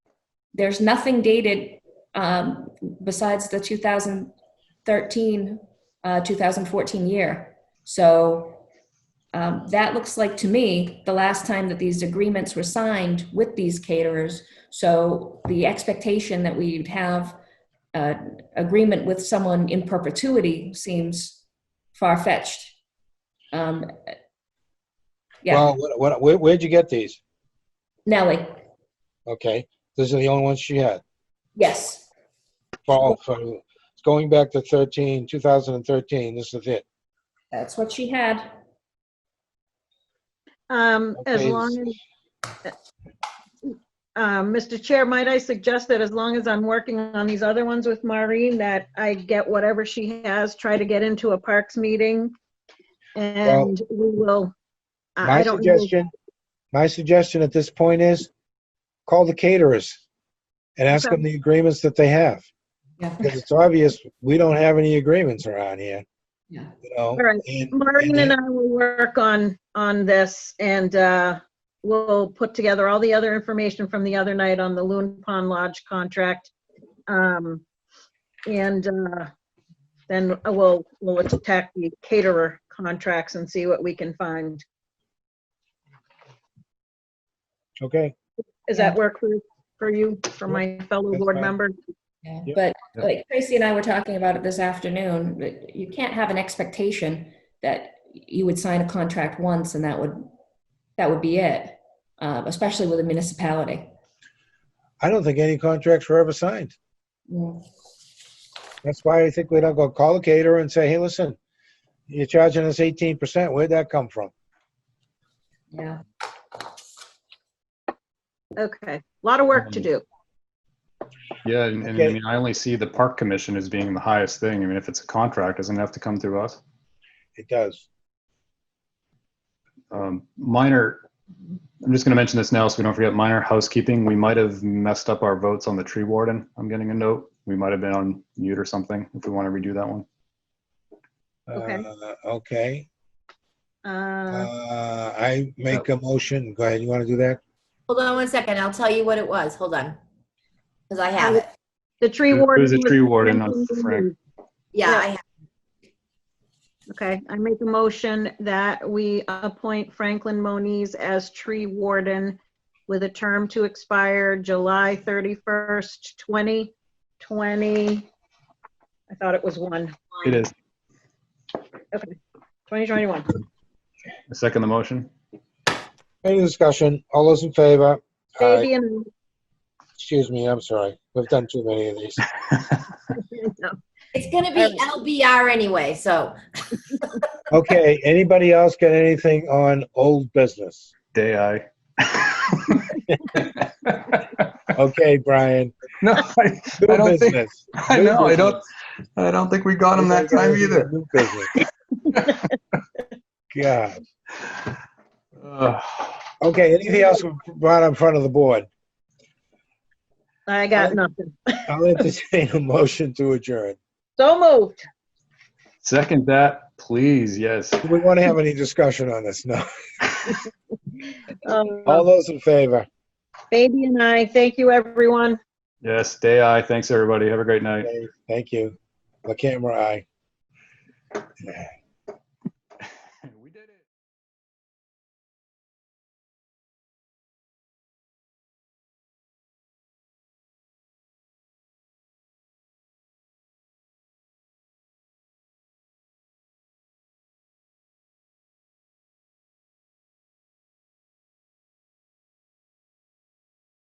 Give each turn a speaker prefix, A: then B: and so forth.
A: there's nothing dated um, besides the 2013, uh, 2014 year. So um, that looks like to me the last time that these agreements were signed with these caterers. So the expectation that we'd have uh, agreement with someone in perpetuity seems far fetched. Um, yeah,
B: Well, what, what, where, where'd you get these?
A: Nellie,
B: Okay, these are the only ones she had.
A: yes,
B: Fall
C: Oh.
B: from, going back to 13, 2013, this is it.
A: that's what she had.
C: Um, as
B: Okay.
C: long as, um, Mr. Chair, might I suggest that as long as I'm working on these other ones with Maureen, that I get whatever she has, try to get into a Parks meeting? And we will, I
B: My
C: I don't, know-
B: suggestion, my suggestion at this point is, call the caterers and ask
C: Okay.
B: them the agreements that they have.
A: Yeah.
B: Because it's obvious, we don't have any agreements around here,
A: Yeah.
B: you know?
C: all right,
B: and-
C: Maureen
B: and-
C: and I will work on, on this and, uh, we'll put together all the other information from the other night on the Loon Pond Lodge contract. Um, and, uh, then we'll, we'll attack the caterer contracts and see what we can find.
B: Okay,
C: Does that work for, for you, for my fellow
B: That's
C: board
B: fine.
C: member?
A: Yeah,
B: Yep.
A: But
B: Yep.
A: like Tracy and I were talking about it this afternoon, that you can't have an expectation that you would sign a contract once and that would, that would be it, uh, especially with a municipality.
B: I don't think any contracts were ever signed.
A: Mm,
B: That's why I think we don't go call the caterer and say, hey, listen, you're charging us 18%, where'd that come from?
A: Yeah,
C: Okay, a lot of work to
B: Um,
C: do.
D: Yeah, and, and I
B: Okay.
D: mean, I only see the park commission as being the highest thing. I mean, if it's a contract, doesn't it have to come through us?
B: It does.
D: Um, minor, I'm just going to mention this now so we don't forget minor housekeeping. We might have messed up our votes on the tree warden. I'm getting a note. We might have been on mute or something if we want to redo that one.
C: Okay.
B: Uh, Okay,
C: Uh,
B: uh, I make a motion, go ahead, you want to do that?
E: Hold on one second. I'll tell you what it was. Hold on. Because I have it.
C: The tree
D: It was
C: warden.
D: a tree warden, not
C: was-
D: Frank.
E: Yeah, I have.
C: Okay, I make a motion that we appoint Franklin Moniz as tree warden with a term to expire July 31st, 2020. I thought it was one,
D: It is.
C: 2021.
D: I second the motion.
B: Any discussion? All those in favor? Aye.
C: Baby and,
B: Excuse me, I'm sorry. We've done too many of these.
E: It's going to be LBR anyway. So,
B: Okay, anybody else got anything on old business?
D: Day I.
B: Okay, Brian.
F: No, I,
B: New
F: I don't think,
B: business.
F: I
B: New
F: know, I
B: business.
F: don't, I don't think we got him that
B: Anybody got
F: time
B: anything
F: either.
B: on new business? God.
D: Ugh.
B: Okay, anything else brought in front of the board?
C: I got nothing.
B: I'll entertain a motion to adjourn.
C: So moved.
D: Second that, please. Yes.
B: Do we want to have any discussion on this? No. All
C: Um,
B: those in favor?
C: Baby and I, thank you, everyone.
D: Yes. Day I. Thanks, everybody. Have a great night.
B: Okay, Thank you. The camera, aye.